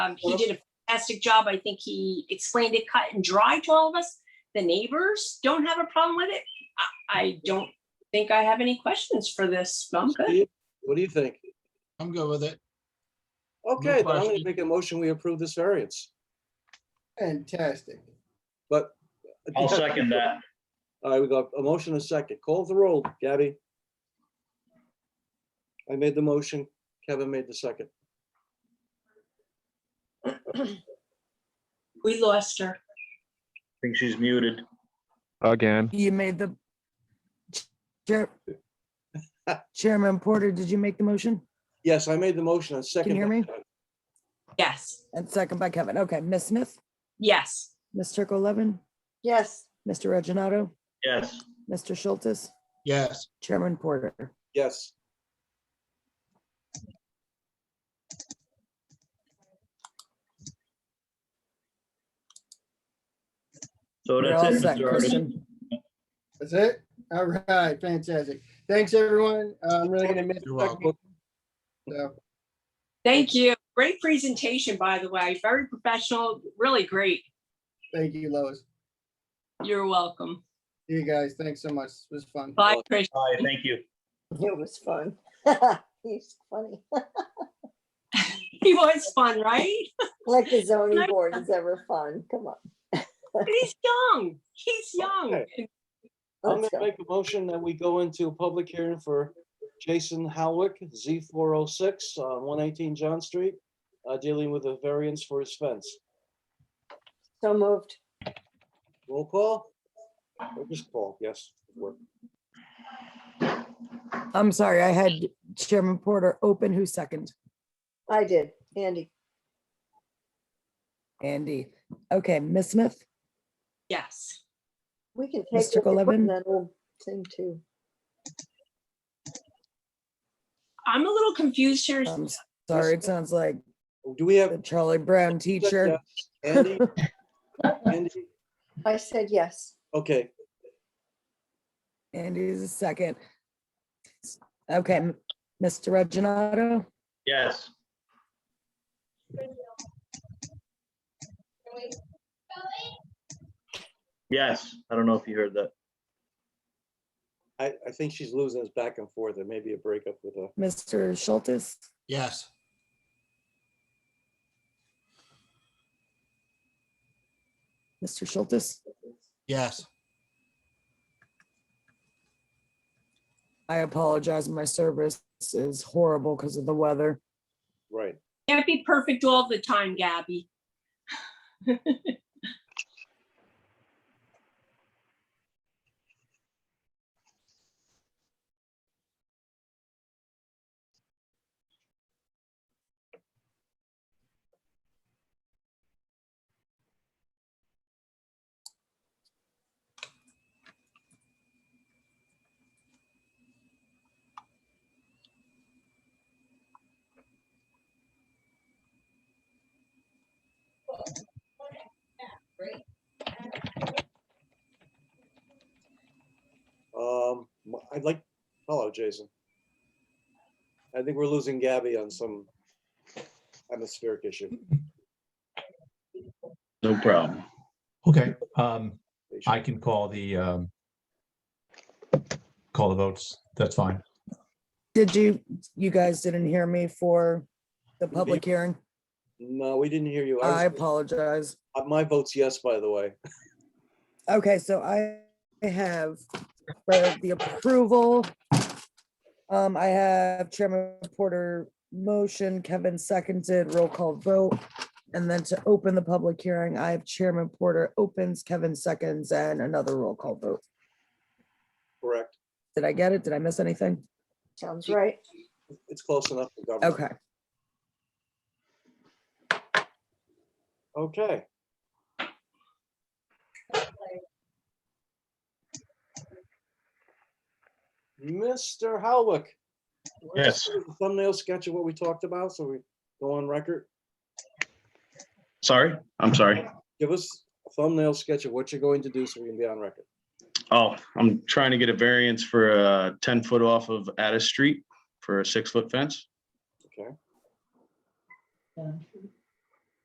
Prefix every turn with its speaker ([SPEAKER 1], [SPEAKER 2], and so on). [SPEAKER 1] Um, he did a fantastic job. I think he explained it cut and dry to all of us. The neighbors don't have a problem with it. I, I don't think I have any questions for this. I'm good.
[SPEAKER 2] Steve, What do you think?
[SPEAKER 3] I'm good with it.
[SPEAKER 2] Okay, then I'm gonna
[SPEAKER 3] question.
[SPEAKER 2] make a motion, we approve this variance,
[SPEAKER 4] Fantastic.
[SPEAKER 2] but.
[SPEAKER 5] I'll second that.
[SPEAKER 2] All right, we got a motion and a second. Call the roll, Gabby. I made the motion, Kevin made the second.
[SPEAKER 1] We lost her.
[SPEAKER 5] I think she's muted.
[SPEAKER 6] again.
[SPEAKER 7] You made the Chair- Chairman Porter, did you make the motion?
[SPEAKER 2] Yes, I made the motion and second.
[SPEAKER 7] hear
[SPEAKER 2] by
[SPEAKER 7] me?
[SPEAKER 2] Kevin.
[SPEAKER 1] Yes,
[SPEAKER 7] And second by Kevin. Okay, Ms. Smith,
[SPEAKER 1] yes,
[SPEAKER 7] Ms. Turco Levin,
[SPEAKER 8] yes,
[SPEAKER 7] Mr. Reggino,
[SPEAKER 5] Yes,
[SPEAKER 7] Mr. Schultz,
[SPEAKER 3] Yes,
[SPEAKER 7] Chairman Porter.
[SPEAKER 2] Yes.
[SPEAKER 5] so
[SPEAKER 7] You're
[SPEAKER 5] that's
[SPEAKER 7] all
[SPEAKER 5] it.
[SPEAKER 7] set,
[SPEAKER 5] Mr. Artis.
[SPEAKER 7] Kristen.
[SPEAKER 4] That's it? All right, fantastic. Thanks, everyone. Uh, I'm really gonna miss
[SPEAKER 3] you're welcome.
[SPEAKER 4] it. So,
[SPEAKER 1] thank you. Great presentation, by the way. Very professional, really great.
[SPEAKER 4] Thank you, Lois.
[SPEAKER 1] You're welcome.
[SPEAKER 4] You guys, thanks so much. This was fun.
[SPEAKER 1] Bye, Trish.
[SPEAKER 5] Hi, thank you.
[SPEAKER 8] it was fun. He's funny,
[SPEAKER 1] He was fun, right?
[SPEAKER 8] like the zoning board is ever fun, come on,
[SPEAKER 1] He's young. He's young.
[SPEAKER 2] I'm gonna
[SPEAKER 8] let's go.
[SPEAKER 2] make a motion that we go into a public hearing for Jason Howick, Z four oh six, uh, one eighteen John Street, uh, dealing with a variance for his fence.
[SPEAKER 8] So moved,
[SPEAKER 2] Roll call? Or Just call, yes. work.
[SPEAKER 7] I'm sorry, I had Chairman Porter open. Who second?
[SPEAKER 8] I did, Andy,
[SPEAKER 7] Andy. Okay, Ms. Smith,
[SPEAKER 1] Yes.
[SPEAKER 8] we can take.
[SPEAKER 7] Mr.
[SPEAKER 8] what they put in
[SPEAKER 7] Golevin?
[SPEAKER 8] That old thing too,
[SPEAKER 1] I'm a little confused here.
[SPEAKER 8] Um,
[SPEAKER 7] I'm sorry, it sounds like
[SPEAKER 2] Do we
[SPEAKER 7] the
[SPEAKER 2] have?
[SPEAKER 7] Charlie Brown teacher.
[SPEAKER 2] Andy? Andy?
[SPEAKER 8] I said yes,
[SPEAKER 2] Okay,
[SPEAKER 7] Andy's a second. Okay, m- Mr. Reggino,
[SPEAKER 5] Yes, yes. I don't know if you heard that.
[SPEAKER 2] I, I think she's losing us back and forth. There may be a breakup with her.
[SPEAKER 7] Mr. Schultz,
[SPEAKER 3] Yes,
[SPEAKER 7] Mr. Schultz.
[SPEAKER 3] yes.
[SPEAKER 7] I apologize. My service is horrible because of the weather.
[SPEAKER 2] Right.
[SPEAKER 1] Can't be perfect all the time, Gabby.
[SPEAKER 2] Um, m- I'd like, hello, Jason. I think we're losing Gabby on some atmospheric issue.
[SPEAKER 5] No problem.
[SPEAKER 9] Okay, um, I can call the, um, call the votes. That's fine.
[SPEAKER 7] Did you, you guys didn't hear me for the public hearing?
[SPEAKER 2] No, we didn't hear you.
[SPEAKER 7] I
[SPEAKER 2] I was-
[SPEAKER 7] apologize.
[SPEAKER 2] uh, My vote's yes, by the way.
[SPEAKER 7] Okay, so I have for the approval. Um, I have Chairman Porter motion, Kevin seconded, roll call vote. And then to open the public hearing, I have Chairman Porter opens, Kevin seconds, and another roll call vote.
[SPEAKER 2] Correct.
[SPEAKER 7] Did I get it? Did I miss anything?
[SPEAKER 8] sounds right,
[SPEAKER 2] It's close enough for government.
[SPEAKER 7] Okay.
[SPEAKER 2] Okay. Mr. Howick.
[SPEAKER 5] Yes.
[SPEAKER 2] Thumbnail sketch of what we talked about, so we go on record.
[SPEAKER 5] Sorry, I'm sorry.
[SPEAKER 2] Give us a thumbnail sketch of what you're going to do so we can be on record.
[SPEAKER 5] Oh, I'm trying to get a variance for a ten foot off of Addis Street for a six foot fence.
[SPEAKER 2] Okay.